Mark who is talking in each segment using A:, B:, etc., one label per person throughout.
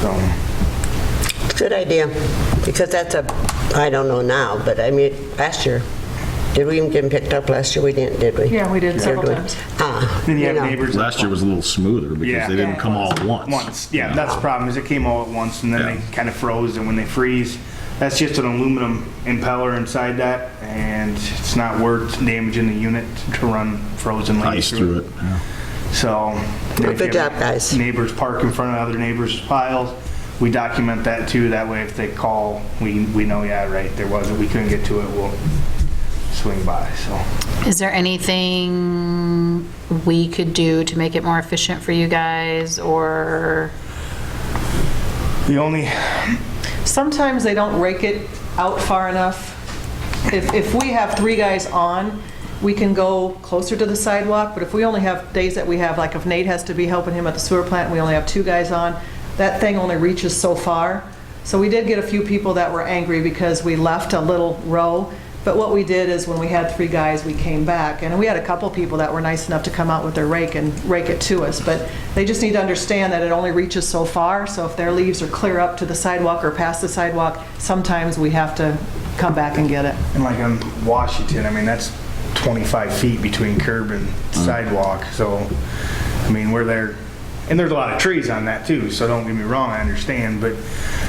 A: So,
B: Good idea, because that's a, I don't know now, but I mean, last year, did we even get picked up last year? We didn't, did we?
C: Yeah, we did
B: Or
C: several
B: do we-
C: times.
B: Ah,
A: Then you have
B: know.
A: neighbors. that
D: Last year was a little smoother
A: Yeah.
D: because they didn't come all at once.
A: Once, yeah, that's the problem, is it came all at once, and
D: Yeah.
A: then they kind of froze, and when they freeze, that's just an aluminum impeller inside that, and it's not worth damaging the unit to run frozen lanes
D: Ice through it. yeah.
A: So. if
B: Good
A: you have
B: job, guys.
A: Neighbors park in front of other neighbors' piles, we document that too, that way if they call, we, we know, yeah, right, there was, we couldn't get to it, we'll swing by, so.
E: Is there anything we could do to make it more efficient for you guys, or?
A: The only,
C: Sometimes they don't rake it out far enough. If, if we have three guys on, we can go closer to the sidewalk, but if we only have days that we have, like if Nate has to be helping him at the sewer plant, and we only have two guys on, that thing only reaches so far. So we did get a few people that were angry because we left a little row, but what we did is when we had three guys, we came back, and we had a couple people that were nice enough to come out with their rake and rake it to us, but they just need to understand that it only reaches so far, so if their leaves are clear up to the sidewalk or past the sidewalk, sometimes we have to come back and get it.
A: And like on Washington, I mean, that's 25 feet between curb and sidewalk, so, I mean, we're there, and there's a lot of trees on that too, so don't get me wrong, I understand, but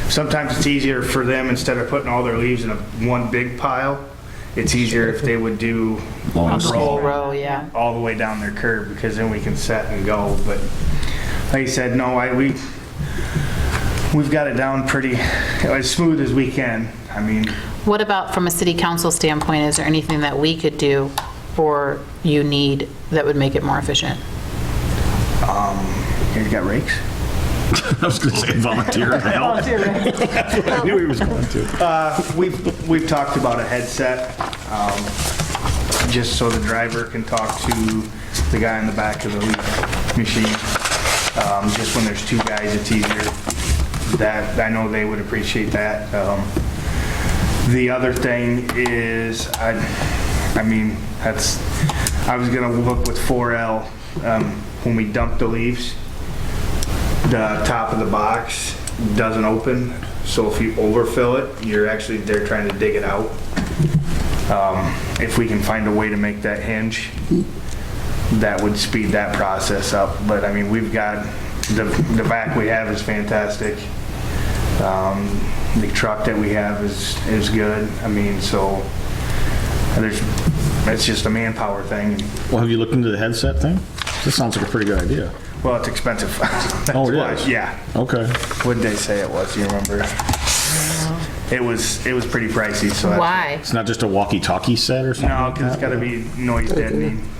A: sometimes it's easier for them, instead of putting all their leaves in a, one big pile, it's easier if they would do
D: Long
A: a roll
D: sweep.
E: Row, yeah.
A: all the way down their curb, because then we can set and go, but like you said, no, I, we, we've got it down pretty, as smooth as we can, I mean.
E: What about from a city council standpoint, is there anything that we could do or you need that would make it more efficient?
A: Here, you got rakes?
D: I was going to say volunteer to help. I knew he was going to.
A: We've, we've talked about a headset, um, just so the driver can talk to the guy in the back of the leaf machine. Um, Just when there's two guys, it's easier. That, I know they would appreciate that. Um, The other thing is, I, I mean, that's, I was gonna look with 4L, um, when we dump the leaves, the top of the box doesn't open, so if you overfill it, you're actually, they're trying to dig it out. Um, If we can find a way to make that hinge, that would speed that process up. But I mean, we've got, the, the back we have is fantastic. Um, The truck that we have is, is good. I mean, so there's, it's just a manpower thing.
D: Well, have you looked into the headset thing? This sounds like a pretty good idea.
A: Well, it's expensive.
D: Oh, it
A: That's why-
D: is?
A: Yeah.
D: Okay.
A: What'd they say it was? Do you remember? It was, it was pretty pricey, so. that's-
E: Why?
D: It's not just a walkie-talkie set or something?
A: No,
D: like
A: because it's
D: that?
A: gotta be noise deadening. 'cause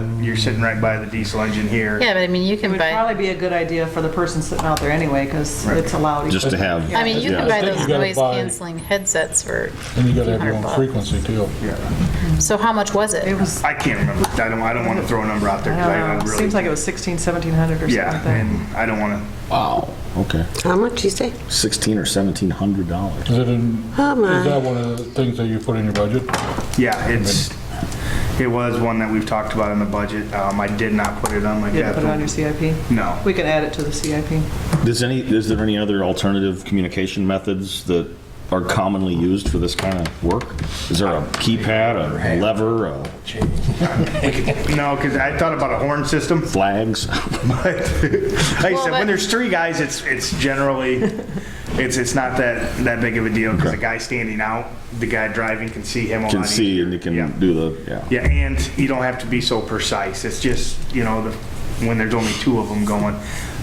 A: of the- You're sitting right by the diesel engine here.
E: Yeah, but I mean, you
C: It
E: can
C: would
E: buy,
C: probably be a good idea for the person sitting out there anyway, because it's allowed.
D: Just to have.
E: I mean, you
D: Yeah.
E: can buy
F: I think
E: those
F: you gotta
E: noise
F: buy-
E: canceling headsets for a
F: And you gotta
E: few
F: have your
E: hundred
F: own
E: bucks.
F: frequency too.
E: So how much was it?
C: It was,
A: I can't remember. I don't, I don't want to throw a number out there.
C: I
A: 'cause I
C: don't know,
A: really-
C: seems like it was 16, 1700 or something like
A: Yeah,
C: that.
A: and I don't want to.
D: Wow, okay.
B: How much you say?
D: 16 or 1700 dollars.
F: Is it in, is
B: Oh, my.
F: that one of the things that you put in your budget?
A: Yeah, it's, it was one that we've talked about in the budget. Um, I did not put it on my.
C: Didn't put it on your CIP?
A: No.
C: We can add it to the CIP.
D: Does any, is there any other alternative communication methods that are commonly used for this kind of work? Is there a keypad, a lever, a
A: No, because I thought about a horn system.
D: flags?
A: But like I
E: Well,
A: said, when
E: but-
A: there's three guys, it's it's generally it's it's not that that big of a deal because the guy standing out, the guy driving can see him. A
D: Can
A: lot
D: see
A: easier.
D: and you
A: Yeah.
D: can do the, yeah.
A: Yeah, and you don't have to be so precise. It's just, you know, the, when there's only two of them going,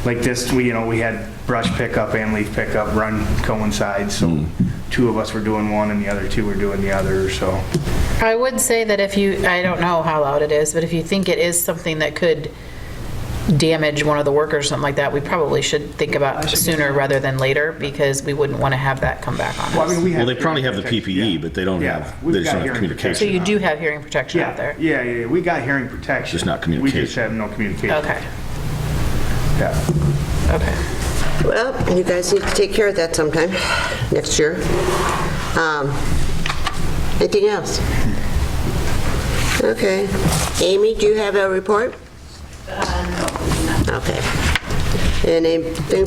A: like this, we, you know, we had brush pickup and leaf pickup run coincide, so
D: Hmm.
A: two of us were doing one and the other two were doing the other, so.
E: I would say that if you, I don't know how loud it is, but if you think it is something that could damage one of the workers, something like that, we probably should think about sooner rather than later, because we wouldn't want to have that come back on us.
D: Well, they probably have the PPE, but they don't
A: Yeah,
D: have,
A: we've
D: they just
A: got
D: don't have
A: hearing
E: So
D: communication.
E: you do have hearing protection out
A: Yeah,
E: there?
A: yeah, yeah, we got hearing protection.
D: Just not
A: We just
D: communication.
A: have no communication.
E: Okay,
A: Yeah.
E: okay.
B: Well, you guys need to take care of that sometime, next year. Um, Anything else? Okay. Amy, do you have a report? Okay. And anything